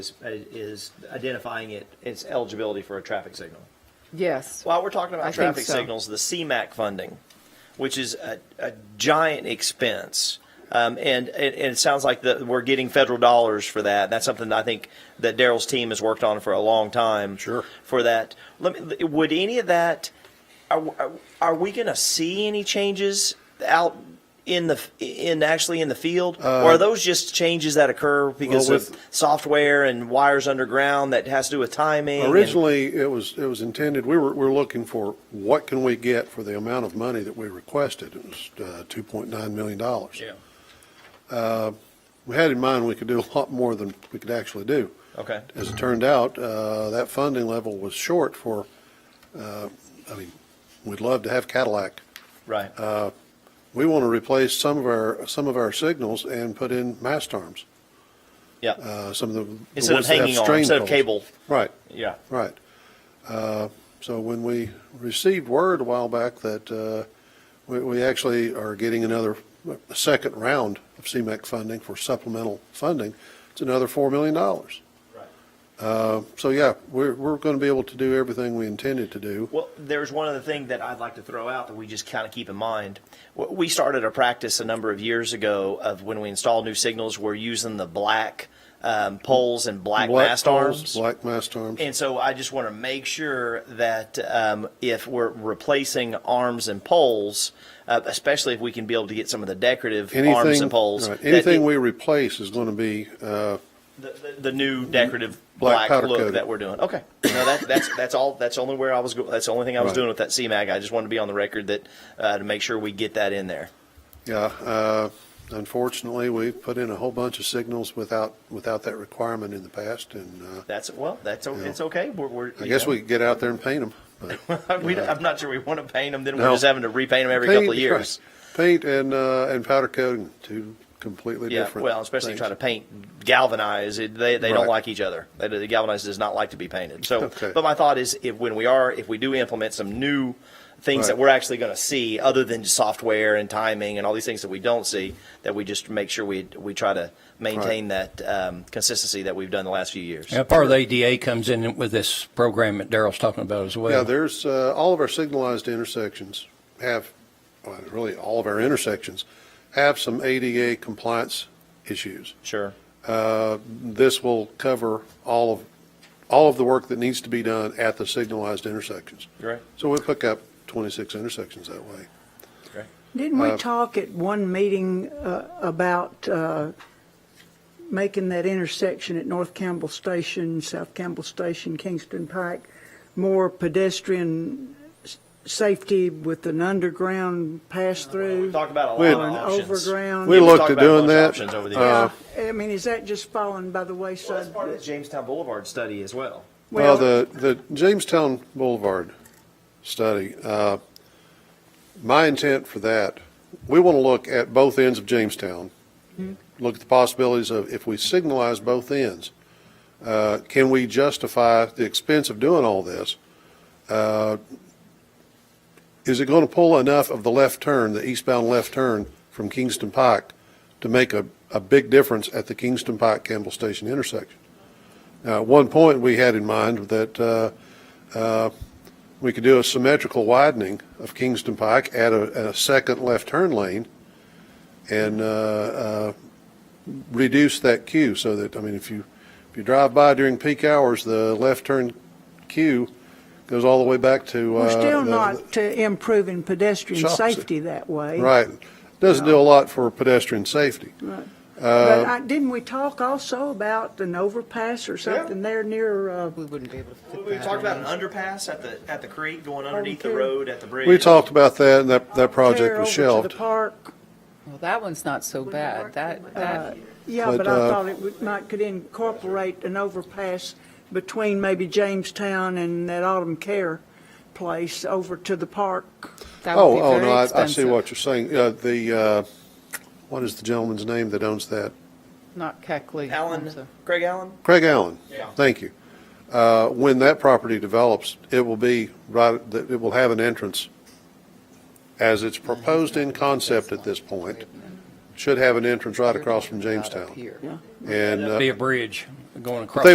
is, is identifying it, its eligibility for a traffic signal. Yes. While we're talking I about think traffic so. signals, the CMAC funding, which is a, a giant expense. Um, and, and and it sounds like that we're getting federal dollars for that. That's something that I think that Daryl's team has worked on for a long time. Sure. For that, let me, would any of that, are, are- are we going to see any changes out in the, in actually in the field? Or are those just changes that occur because Uh, Well, of with- software and wires underground that has to do with timing? and- Originally, it was, it was intended, we were, we were looking for what can we get for the amount of money that we requested. It was uh, $2.9 million. Yeah. We had in mind we could do a lot more than we could actually do. Okay. As it turned out, uh, that funding level was short for, uh, I mean, we'd love to have Cadillac. Right. We want to replace some of our, some of our signals and put in mast arms, Yeah. uh, some of the- the. Instead of ones that have hanging on, strain instead of poles. cable. Right. Yeah. Right. Uh, So when we received word a while back that uh, we we actually are getting another, a second round of CMAC funding for supplemental funding, it's another $4 million. Uh, So yeah, we're, we're going to be able to do everything we intended to do. Well, there's one other thing that I'd like to throw out that we just kind of keep in mind. W- We started a practice a number of years ago of when we install new signals, we're using the black um, poles and black, mast poles, arms. Black mast arms. And so I just want to make sure that um, if we're replacing arms and poles, uh, especially if we can be able to get some of the decorative arms Anything- and poles, right, that Anything it- we replace is going to be, uh, the, the- the new decorative black, Black powder look coated. that we're doing. Okay, no, that, that's that's all. That's only where I was. Go- that's the only thing I was Right. doing with that CMAG. I just wanted to be on the record that uh, to make sure we get that in there. yeah, uh, unfortunately, we've put in a whole bunch of signals without, without that requirement in the past, and uh, That's well. That's o it's okay. We're, we're I you guess know. we could get out there and paint uh, them. we don't- I'm not sure we want to paint them. Then we're No. just having to repaint them every couple of years. Paint and, uh, and powder coating, two completely Yeah, different. well, especially things. trying to paint galvanized, it- they, they don't Right. like each other. They, the galvanized does not like to be painted. So, Okay. but my thought is, if when we are, if we do implement some new things that Right. we're actually going to see, other than software and timing and all these things that we don't see, that we just make sure we we try to maintain that um, consistency that we've done the last few years. And part of the ADA comes in with this program that Daryl's talking about as well. Yeah, there's, uh, all of our signalized intersections have, well, really, all of our intersections have some ADA compliance issues. Sure. Uh, This will cover all of, all of the work that needs to be done at the signalized intersections. Right. So we pick up 26 intersections that way. Didn't Uh, we talk at one meeting uh, about uh, making that intersection at North Campbell Station, South Campbell Station, Kingston Pike, more pedestrian s- safety with an underground pass-through? Talk about a We- lot of options. Overground. We We've looked uh, talked at about a bunch of doing that. Options over the years. Yeah, I mean, is that just falling by the well, that's wayside? part of the Jamestown Boulevard study as well. Well, Well- the, the Jamestown Boulevard study, uh, my intent for that, we want to look at both ends of Jamestown. Look at the possibilities of, if we signalize both ends, uh, can we justify the expense of doing all this? Uh, Is it going to pull enough of the left turn, the eastbound left turn from Kingston Pike to make a, a big difference at the Kingston Pike Campbell Station intersection? Now, at one point, we had in mind that uh, uh, we could do a symmetrical widening of Kingston Pike, add a, a second left turn lane, and uh, uh, reduce that queue so that, I mean, if you, if you drive by during peak hours, the left turn queue goes all the way back to. We're uh, still the- not uh, improving pedestrian Shops. safety that way. Right. Doesn't do a lot for pedestrian safety. Uh, Uh, But I- didn't we talk also about an overpass or something there near, uh, We wouldn't be able to fit We that talked in. about an underpass at the at the creek going underneath the Okay. road at the bridge. We talked about that, and that, that there project was over to shelved. the park? Well, that one's not so bad. That, that, Yeah, But, but I uh, thought it would- might, could incorporate an overpass between maybe Jamestown and that Autumn Care place over to the park. that would Oh, be oh, very no, I, I see expensive. what you're saying. Uh, the, uh, what is the gentleman's name that owns that? Not Keckley. I'm Allen, so- Craig Allen. Craig Allen. Yeah. Thank you. Uh, when that property develops, it will be right, that it will have an entrance. As it's proposed in concept at this point, should have an entrance right across from Not up Jamestown. here. And, uh, Be a bridge going across.